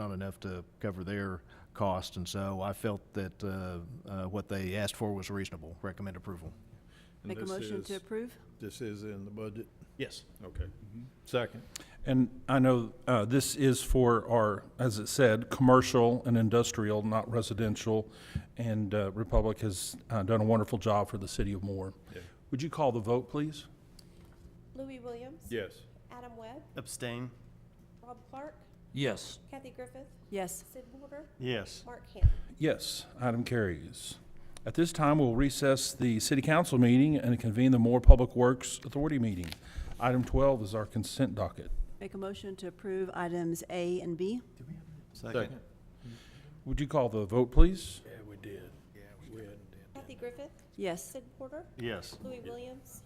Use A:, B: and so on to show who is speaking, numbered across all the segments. A: not enough to cover their cost, and so I felt that uh, uh, what they asked for was reasonable. Recommend approval.
B: And
C: Make a
B: this
C: motion to
B: is-
C: approve?
B: This is in the budget?
A: Yes.
B: Okay. Second.
D: And I know uh, this is for our, as it said, commercial and industrial, not residential, and uh, Republic has uh, done a wonderful job for the city of Moore.
B: Yeah.
D: Would you call the vote, please?
E: Louis Williams.
B: Yes.
E: Adam Webb.
F: Abstain.
E: Rob Clark.
G: Yes.
E: Kathy Griffith.
C: Yes.
E: Sid Porter.
F: Yes.
E: Mark Ham.
D: Yes, item carries. At this time, we'll recess the city council meeting and convene the Moore Public Works Authority meeting. Item 12 is our consent docket.
C: Make a motion to approve items A and B?
F: Second.
D: Would you call the vote, please?
B: Yeah, we did. Yeah, we did.
E: Kathy Griffith.
C: Yes.
E: Sid Porter.
F: Yes.
E: Louis Williams.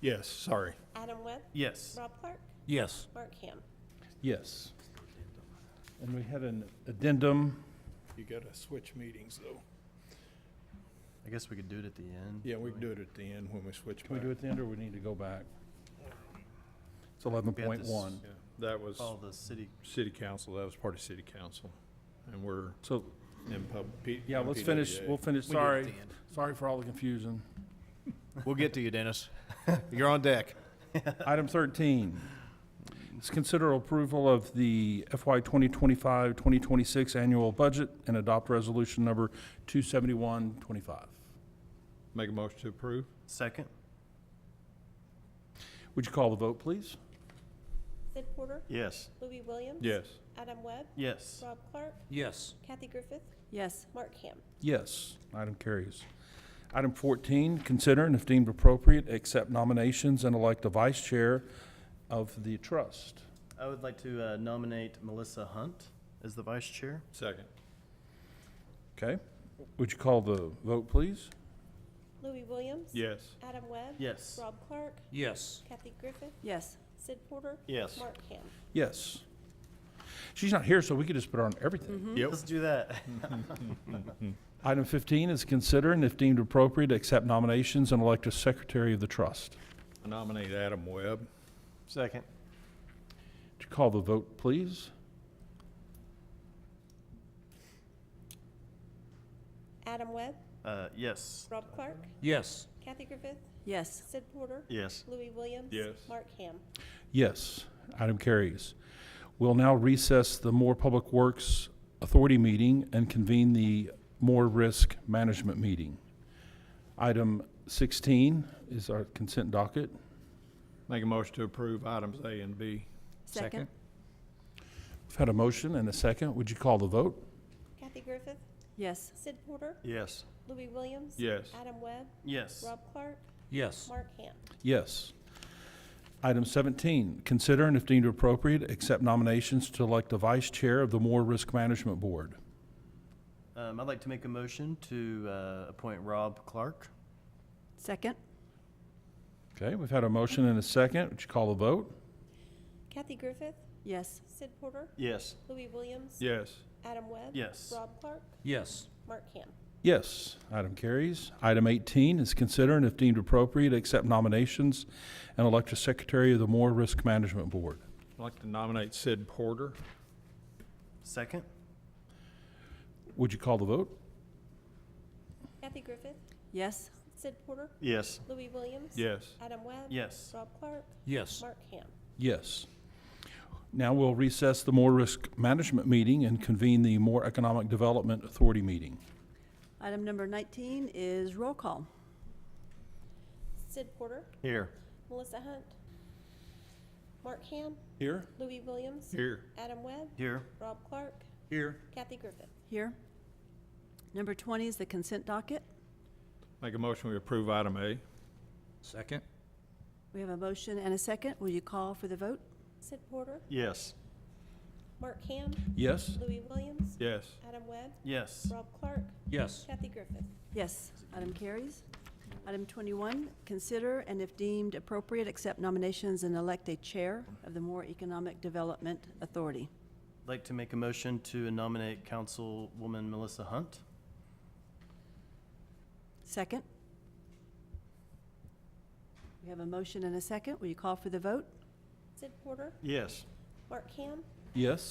B: Yes, sorry.
E: Adam Webb.
F: Yes.
E: Rob Clark.
G: Yes.
E: Mark Ham.
D: Yes. And we had an addendum.
B: You gotta switch meetings, though.
F: I guess we could do it at the end.
B: Yeah, we can do it at the end when we switch
D: Can we
B: back.
D: do it then, or we need to go back? It's 11.1.
B: Yeah, That was
F: All the city.
B: city council, that was part of city council, and we're
D: So,
B: in public.
D: yeah, let's finish, we'll finish,
A: We did at
D: sorry,
A: the end.
D: sorry for all the confusion.
A: We'll get to you, Dennis. You're on deck.
D: Item 13, is consider approval of the FY 2025-2026 annual budget and adopt resolution number 27125.
B: Make a motion to approve?
F: Second.
D: Would you call the vote, please?
E: Sid Porter.
F: Yes.
E: Louis Williams.
B: Yes.
E: Adam Webb.
F: Yes.
E: Rob Clark.
G: Yes.
E: Kathy Griffith.
C: Yes.
E: Mark Ham.
D: Yes, item carries. Item 14, consider and if deemed appropriate, accept nominations and elect a vice chair of the trust.
F: I would like to uh, nominate Melissa Hunt as the vice chair.
B: Second.
D: Okay, would you call the vote, please?
E: Louis Williams.
B: Yes.
E: Adam Webb.
F: Yes.
E: Rob Clark.
G: Yes.
E: Kathy Griffith.
C: Yes.
E: Sid Porter.
F: Yes.
E: Mark Ham.
D: Yes. She's not here, so we could just put her on everything.
B: Yep.
F: Let's do that.
D: Item 15 is consider and if deemed appropriate, accept nominations and elect a secretary of the trust.
B: I Nominate Adam Webb.
F: Second.
D: Would you call the vote, please?
E: Adam Webb.
F: Uh, yes.
E: Rob Clark.
G: Yes.
E: Kathy Griffith.
C: Yes.
E: Sid Porter.
F: Yes.
E: Louis Williams.
B: Yes.
E: Mark Ham.
D: Yes, item carries. We'll now recess the Moore Public Works Authority meeting and convene the Moore Risk Management meeting. Item 16 is our consent docket.
B: Make a motion to approve items A and B.
C: Second?
D: We've had a motion and a second. Would you call the vote?
E: Kathy Griffith.
C: Yes.
E: Sid Porter.
F: Yes.
E: Louis Williams.
B: Yes.
E: Adam Webb.
F: Yes.
E: Rob Clark.
G: Yes.
E: Mark Ham.
D: Yes. Item 17, consider and if deemed appropriate, accept nominations to elect a vice chair of the Moore Risk Management Board.
F: Um, I'd like to make a motion to uh, appoint Rob Clark.
C: Second?
D: Okay, we've had a motion and a second. Would you call the vote?
E: Kathy Griffith.
C: Yes.
E: Sid Porter.
F: Yes.
E: Louis Williams.
B: Yes.
E: Adam Webb.
F: Yes.
E: Rob Clark.
G: Yes.
E: Mark Ham.
D: Yes, item carries. Item 18 is consider and if deemed appropriate, accept nominations and elect a secretary of the Moore Risk Management Board.
B: I'd like to nominate Sid Porter.
F: Second.
D: Would you call the vote?
E: Kathy Griffith.
C: Yes.
E: Sid Porter.
F: Yes.
E: Louis Williams.
B: Yes.
E: Adam Webb.
F: Yes.
E: Rob Clark.
G: Yes.
E: Mark Ham.
D: Yes. Now we'll recess the Moore Risk Management meeting and convene the Moore Economic Development Authority meeting.
C: Item number 19 is roll call.
E: Sid Porter.
F: Here.
E: Melissa Hunt. Mark Ham.
D: Here?
E: Louis Williams.
B: Here.
E: Adam Webb.
F: Here.
E: Rob Clark.
G: Here.
E: Kathy Griffith.
C: Here. Number 20 is the consent docket.
B: Make a motion we approve item A.
G: Second.
C: We have a motion and a second. Will you call for the vote?
E: Sid Porter.
F: Yes.
E: Mark Ham.
D: Yes?
E: Louis Williams.
B: Yes.
E: Adam Webb.
F: Yes.
E: Rob Clark.
G: Yes.
E: Kathy Griffith.
C: Yes. Item carries. Item 21, consider and if deemed appropriate, accept nominations and elect a chair of the Moore Economic Development Authority.
F: I'd like to make a motion to nominate Councilwoman Melissa Hunt.
C: Second. We have a motion and a second. Will you call for the vote?
E: Sid Porter.
F: Yes.
E: Mark Ham.
D: Yes.